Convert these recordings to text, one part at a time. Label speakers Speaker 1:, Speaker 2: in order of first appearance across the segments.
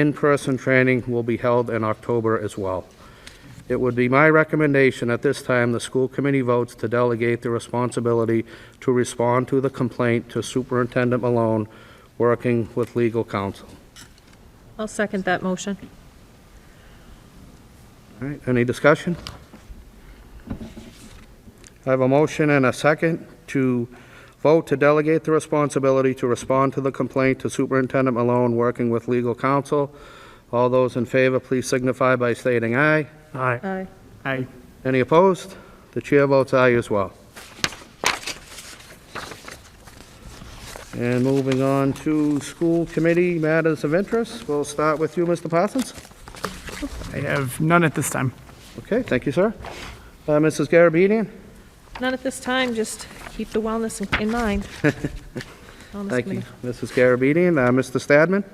Speaker 1: In-person training will be held in October as well. It would be my recommendation at this time the school committee votes to delegate the responsibility to respond to the complaint to Superintendent Malone, working with legal counsel.
Speaker 2: I'll second that motion.
Speaker 1: All right, any discussion? I have a motion and a second to vote to delegate the responsibility to respond to the complaint to Superintendent Malone, working with legal counsel. All those in favor, please signify by stating aye.
Speaker 3: Aye.
Speaker 2: Aye.
Speaker 3: Aye.
Speaker 1: Any opposed? The chair votes aye as well. And moving on to school committee matters of interest, we'll start with you, Mr. Parsons.
Speaker 3: I have none at this time.
Speaker 1: Okay, thank you, sir. Uh, Mrs. Garabedian?
Speaker 2: Not at this time, just keep the wellness in- in mind. Wellness
Speaker 1: Thank you,
Speaker 2: committee.
Speaker 1: Mrs. Garabedian. Uh, Mr. Stadman?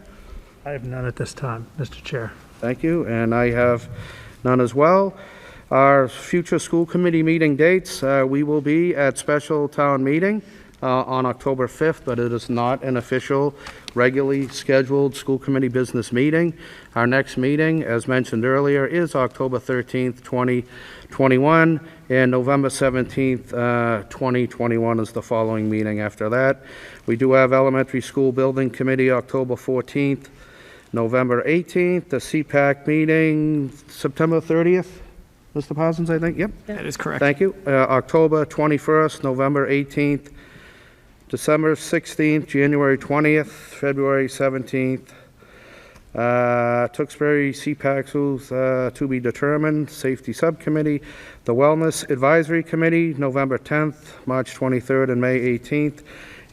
Speaker 4: I have none at this time, Mr. Chair.
Speaker 1: Thank you, and I have none as well. Our future school committee meeting dates, uh, we will be at special town meeting uh, on October 5th, but it is not an official, regularly scheduled school committee business meeting. Our next meeting, as mentioned earlier, is October 13th, 2021, and November 17th, uh, 2021 is the following meeting after that. We do have elementary school building committee October 14th, November 18th, the CPAC meeting, September 30th, Mr. Parsons, I think, yep.
Speaker 3: That is correct.
Speaker 1: Thank you. Uh, October 21st, November 18th, December 16th, January 20th, February 17th. Uh, Tewksbury CPACs, uh, to be determined, Safety Subcommittee, the Wellness Advisory Committee, November 10th, March 23rd, and May 18th.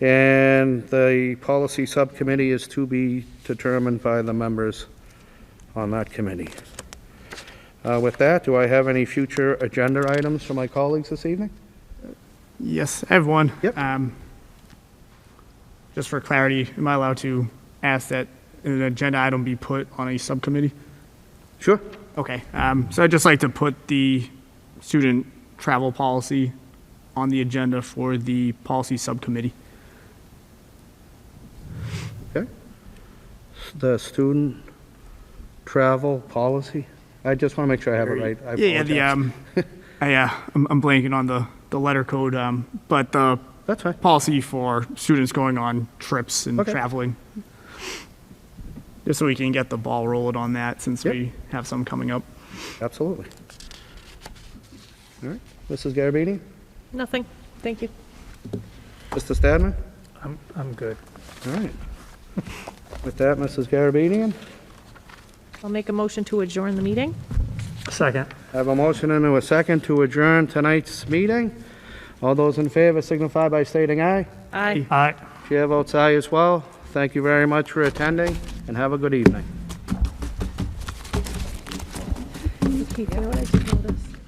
Speaker 1: And the Policy Subcommittee is to be determined by the members on that committee. Uh, With that, do I have any future agenda items for my colleagues this evening?
Speaker 3: Yes, I have one.
Speaker 1: Yep.
Speaker 3: Um, Just for clarity, am I allowed to ask that an agenda item be put on a subcommittee?
Speaker 1: Sure.
Speaker 3: Okay, um, so I'd just like to put the student travel policy on the agenda for the policy subcommittee.
Speaker 1: The student travel policy? I just want to make sure I have it right. I
Speaker 3: Yeah, yeah, the,
Speaker 1: apologize.
Speaker 3: um, I, uh, I'm, I'm blanking on the, the letter code, um, but the
Speaker 1: That's fine.
Speaker 3: policy for students going on trips and
Speaker 1: Okay.
Speaker 3: traveling. Just so we can get the ball rolling on that since
Speaker 1: Yep.
Speaker 3: we have some coming up.
Speaker 1: Absolutely. All right. Mrs. Garabedian?
Speaker 2: Nothing, thank you.
Speaker 1: Mr. Stadman?
Speaker 4: I'm, I'm good.
Speaker 1: All right. With that, Mrs. Garabedian?
Speaker 2: I'll make a motion to adjourn the meeting.
Speaker 4: Second.
Speaker 1: I have a motion and a second to adjourn tonight's meeting. All those in favor signify by stating aye.
Speaker 2: Aye.
Speaker 4: Aye.
Speaker 1: Chair votes aye as well. Thank you very much for attending, and have a good evening.
Speaker 2: Keith, you know what I just noticed?